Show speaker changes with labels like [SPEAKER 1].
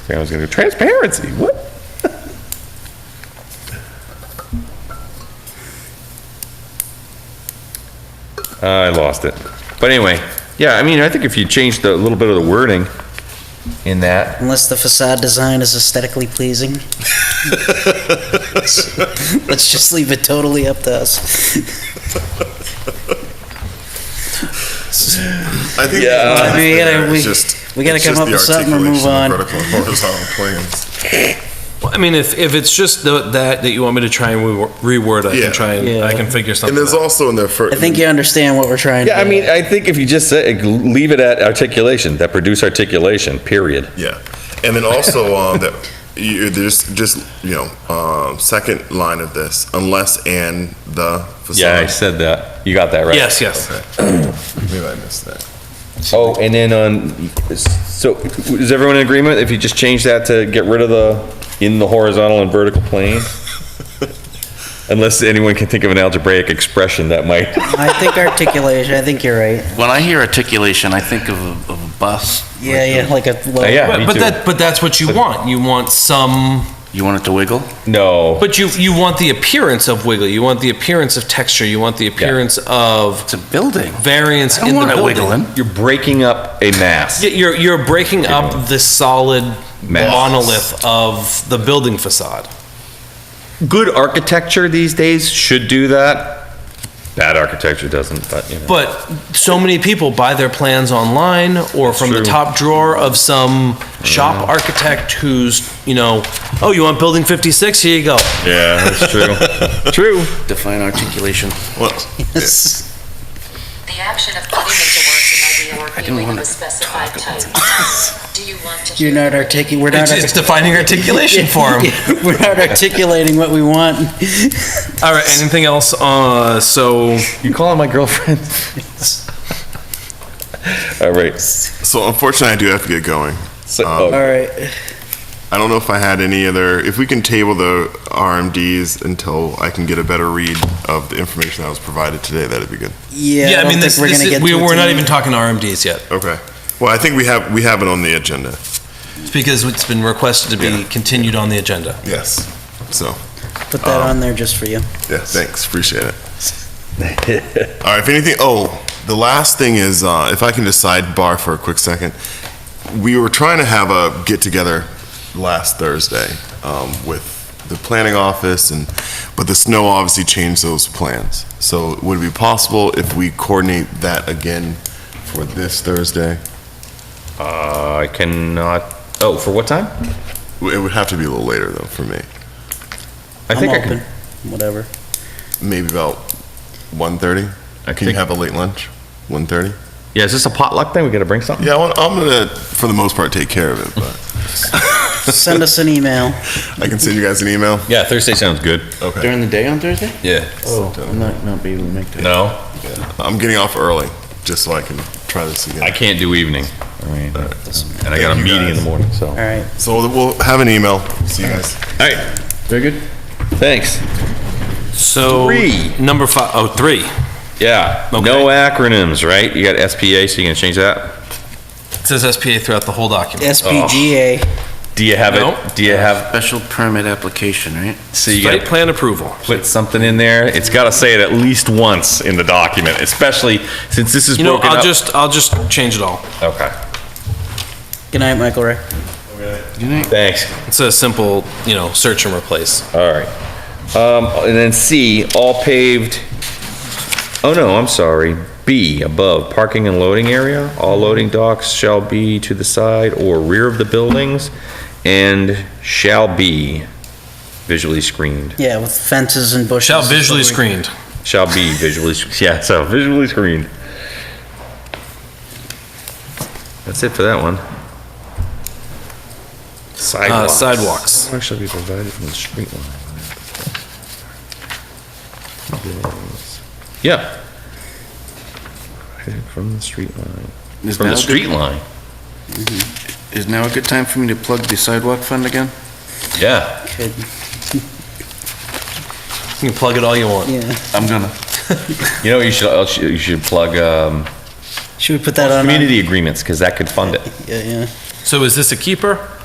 [SPEAKER 1] think I was gonna go, transparency, what? I lost it. But anyway, yeah, I mean, I think if you change the, a little bit of the wording in that,
[SPEAKER 2] Unless the facade design is aesthetically pleasing. Let's just leave it totally up to us.
[SPEAKER 3] I think.
[SPEAKER 1] Yeah.
[SPEAKER 3] it's
[SPEAKER 2] We gotta-
[SPEAKER 3] there,
[SPEAKER 2] we-
[SPEAKER 3] it's just-
[SPEAKER 2] we gotta
[SPEAKER 3] it's
[SPEAKER 2] come
[SPEAKER 3] just
[SPEAKER 2] up
[SPEAKER 3] the
[SPEAKER 2] with something or move on.
[SPEAKER 3] articulation of Vertical and horizontal plans.
[SPEAKER 4] Well, I mean, if, if it's just the, that that you want me to try and re- reword, I
[SPEAKER 3] Yeah.
[SPEAKER 4] can try and I
[SPEAKER 2] Yeah.
[SPEAKER 4] can figure something.
[SPEAKER 3] And there's
[SPEAKER 4] out.
[SPEAKER 3] also in the first.
[SPEAKER 2] I think you understand what we're trying to do.
[SPEAKER 1] yeah, I mean, I think if you just say, leave it at articulation, that produce articulation, period.
[SPEAKER 3] Yeah, and then also um, that you, there's just you know um, second line of this unless and the facade.
[SPEAKER 1] Yeah, I said that. You got that right.
[SPEAKER 4] yes, yes.
[SPEAKER 3] Maybe I missed that.
[SPEAKER 1] Oh, and then on, so is everyone in agreement if you just change that to get rid of the, in the horizontal and vertical plane? Unless anyone can think of an algebraic expression that might.
[SPEAKER 2] I think articulation, I think you're right.
[SPEAKER 5] When I hear articulation, I think of a, of a bus.
[SPEAKER 2] Yeah, yeah, like a low.
[SPEAKER 1] Yeah, me
[SPEAKER 4] But, but
[SPEAKER 1] too.
[SPEAKER 4] that but that's what you want. You want some,
[SPEAKER 5] You want it to wiggle?
[SPEAKER 1] No,
[SPEAKER 4] but you you want the appearance of wiggle. You want the appearance of texture. You want the appearance of
[SPEAKER 5] It's a building.
[SPEAKER 4] variance
[SPEAKER 5] I don't
[SPEAKER 4] in
[SPEAKER 5] want
[SPEAKER 4] the
[SPEAKER 5] it
[SPEAKER 4] building.
[SPEAKER 5] wiggling.
[SPEAKER 1] you're breaking up a mass.
[SPEAKER 4] Y- You're you're breaking up the solid
[SPEAKER 1] Mass.
[SPEAKER 4] monolith of the building facade.
[SPEAKER 1] Good architecture these days should do that. Bad architecture doesn't, but you know.
[SPEAKER 4] But so many people buy their plans online or from the
[SPEAKER 1] True.
[SPEAKER 4] top drawer of some shop architect who's, you know, oh, you want building 56? Here you go.
[SPEAKER 1] Yeah, that's true. True.
[SPEAKER 5] Define articulation.
[SPEAKER 3] Well,
[SPEAKER 6] The action of putting into words an idea or
[SPEAKER 5] didn't
[SPEAKER 6] feeling of
[SPEAKER 5] wanna
[SPEAKER 6] a specified type. Do you want to
[SPEAKER 2] You're
[SPEAKER 6] hear?
[SPEAKER 2] not articulating, we're not.
[SPEAKER 4] It's, it's defining articulation for him.
[SPEAKER 2] artic- We're not articulating what we want.
[SPEAKER 4] All right, anything else? Uh, so,
[SPEAKER 1] You calling my girlfriend? All right. so-
[SPEAKER 3] so unfortunately, I do have to get going.
[SPEAKER 1] oh,
[SPEAKER 2] All right,
[SPEAKER 3] I don't know if I had any other. If we can table the RMDs until I can get a better read of the information that was provided today, that'd be good.
[SPEAKER 2] yeah.
[SPEAKER 4] yeah, I
[SPEAKER 2] don't
[SPEAKER 4] mean,
[SPEAKER 2] think
[SPEAKER 4] this,
[SPEAKER 2] we're
[SPEAKER 4] this
[SPEAKER 2] gonna
[SPEAKER 4] is,
[SPEAKER 2] get
[SPEAKER 4] we,
[SPEAKER 2] to it
[SPEAKER 4] we're not
[SPEAKER 2] tonight.
[SPEAKER 4] even talking RMDs yet
[SPEAKER 3] Okay. Well, I think we have we have it on the agenda.
[SPEAKER 4] It's because it's been requested to be continued on the agenda.
[SPEAKER 3] Yes. So
[SPEAKER 2] Put that
[SPEAKER 4] Oh.
[SPEAKER 2] on there just for you.
[SPEAKER 3] Yeah, thanks. Appreciate it. All right, if anything, oh, the last thing is, uh, if I can just sidebar for a quick second. We were trying to have a get together last Thursday um, with the planning office, and but the snow obviously changed those plans. So would it be possible if we coordinate that again for this Thursday?
[SPEAKER 1] Uh, I cannot, oh, for what time?
[SPEAKER 3] It would have to be a little later though for me,
[SPEAKER 1] I
[SPEAKER 2] I'm
[SPEAKER 1] think I
[SPEAKER 2] open,
[SPEAKER 1] can.
[SPEAKER 2] whatever.
[SPEAKER 3] maybe about 1:30.
[SPEAKER 1] I
[SPEAKER 3] Can you
[SPEAKER 1] think-
[SPEAKER 3] have a late lunch? 1:30.
[SPEAKER 1] Yeah, is this a potluck thing? We gotta bring something?
[SPEAKER 3] Yeah, I want- I'm gonna, for the most part, take care of it, but
[SPEAKER 2] Send us an email.
[SPEAKER 3] I can send you guys an email.
[SPEAKER 1] Yeah, Thursday sounds good.
[SPEAKER 3] Okay.
[SPEAKER 5] During the day on Thursday?
[SPEAKER 1] Yeah.
[SPEAKER 5] Oh, I'm not, not be able to make that.
[SPEAKER 1] No,
[SPEAKER 3] I'm getting off early, just so I can try this
[SPEAKER 1] I
[SPEAKER 3] again.
[SPEAKER 1] can't do evening. I mean, and I got a
[SPEAKER 3] Thank you,
[SPEAKER 1] meeting in the
[SPEAKER 3] guys.
[SPEAKER 1] morning, so.
[SPEAKER 2] All right.
[SPEAKER 3] So we'll have an email. See you guys.
[SPEAKER 1] All right. Very good. Thanks.
[SPEAKER 4] So,
[SPEAKER 1] Three.
[SPEAKER 4] number five, oh, three.
[SPEAKER 1] Yeah, no
[SPEAKER 4] Okay.
[SPEAKER 1] acronyms, right? You got SPA, so you gonna change that?
[SPEAKER 4] It says SPA throughout the whole document.
[SPEAKER 2] SPGA.
[SPEAKER 1] Do you have
[SPEAKER 4] No.
[SPEAKER 1] it? Do you have,
[SPEAKER 5] Special permit application, right?
[SPEAKER 1] so you
[SPEAKER 4] Site
[SPEAKER 1] gotta
[SPEAKER 4] plan approval.
[SPEAKER 1] put something in there? It's gotta say it at least once in the document, especially since this is
[SPEAKER 4] You know,
[SPEAKER 1] broken
[SPEAKER 4] I'll
[SPEAKER 1] up.
[SPEAKER 4] just, I'll just change it all.
[SPEAKER 1] Okay,
[SPEAKER 2] Good night, Michael Ray.
[SPEAKER 1] thanks.
[SPEAKER 4] It's a simple, you know, search and replace.
[SPEAKER 1] All right. Um, and then C, all paved, oh no, I'm sorry, B, above, parking and loading area, all loading docks shall be to the side or rear of the buildings and shall be visually screened,
[SPEAKER 2] Yeah, with fences and bushes.
[SPEAKER 4] Shall
[SPEAKER 2] and
[SPEAKER 4] visually
[SPEAKER 2] stuff like-
[SPEAKER 4] screened.
[SPEAKER 1] shall be visually, yeah, so visually screened. That's it for that one. Sidewalks.
[SPEAKER 4] Uh, sidewalks.
[SPEAKER 1] Sidewalks shall be provided from the street line. Yeah. From the street line.
[SPEAKER 5] Is
[SPEAKER 1] From the
[SPEAKER 5] now a good-
[SPEAKER 1] street line,
[SPEAKER 5] Is now a good time for me to plug the sidewalk fund again?
[SPEAKER 1] yeah.
[SPEAKER 2] Could-
[SPEAKER 4] You can plug it all you want.
[SPEAKER 2] Yeah.
[SPEAKER 5] I'm gonna.
[SPEAKER 1] You know, what you should, else you you should plug, um,
[SPEAKER 2] Should we put that on? our-
[SPEAKER 1] community agreements, because that could fund it.
[SPEAKER 2] Yeah, yeah.
[SPEAKER 4] So is this a keeper?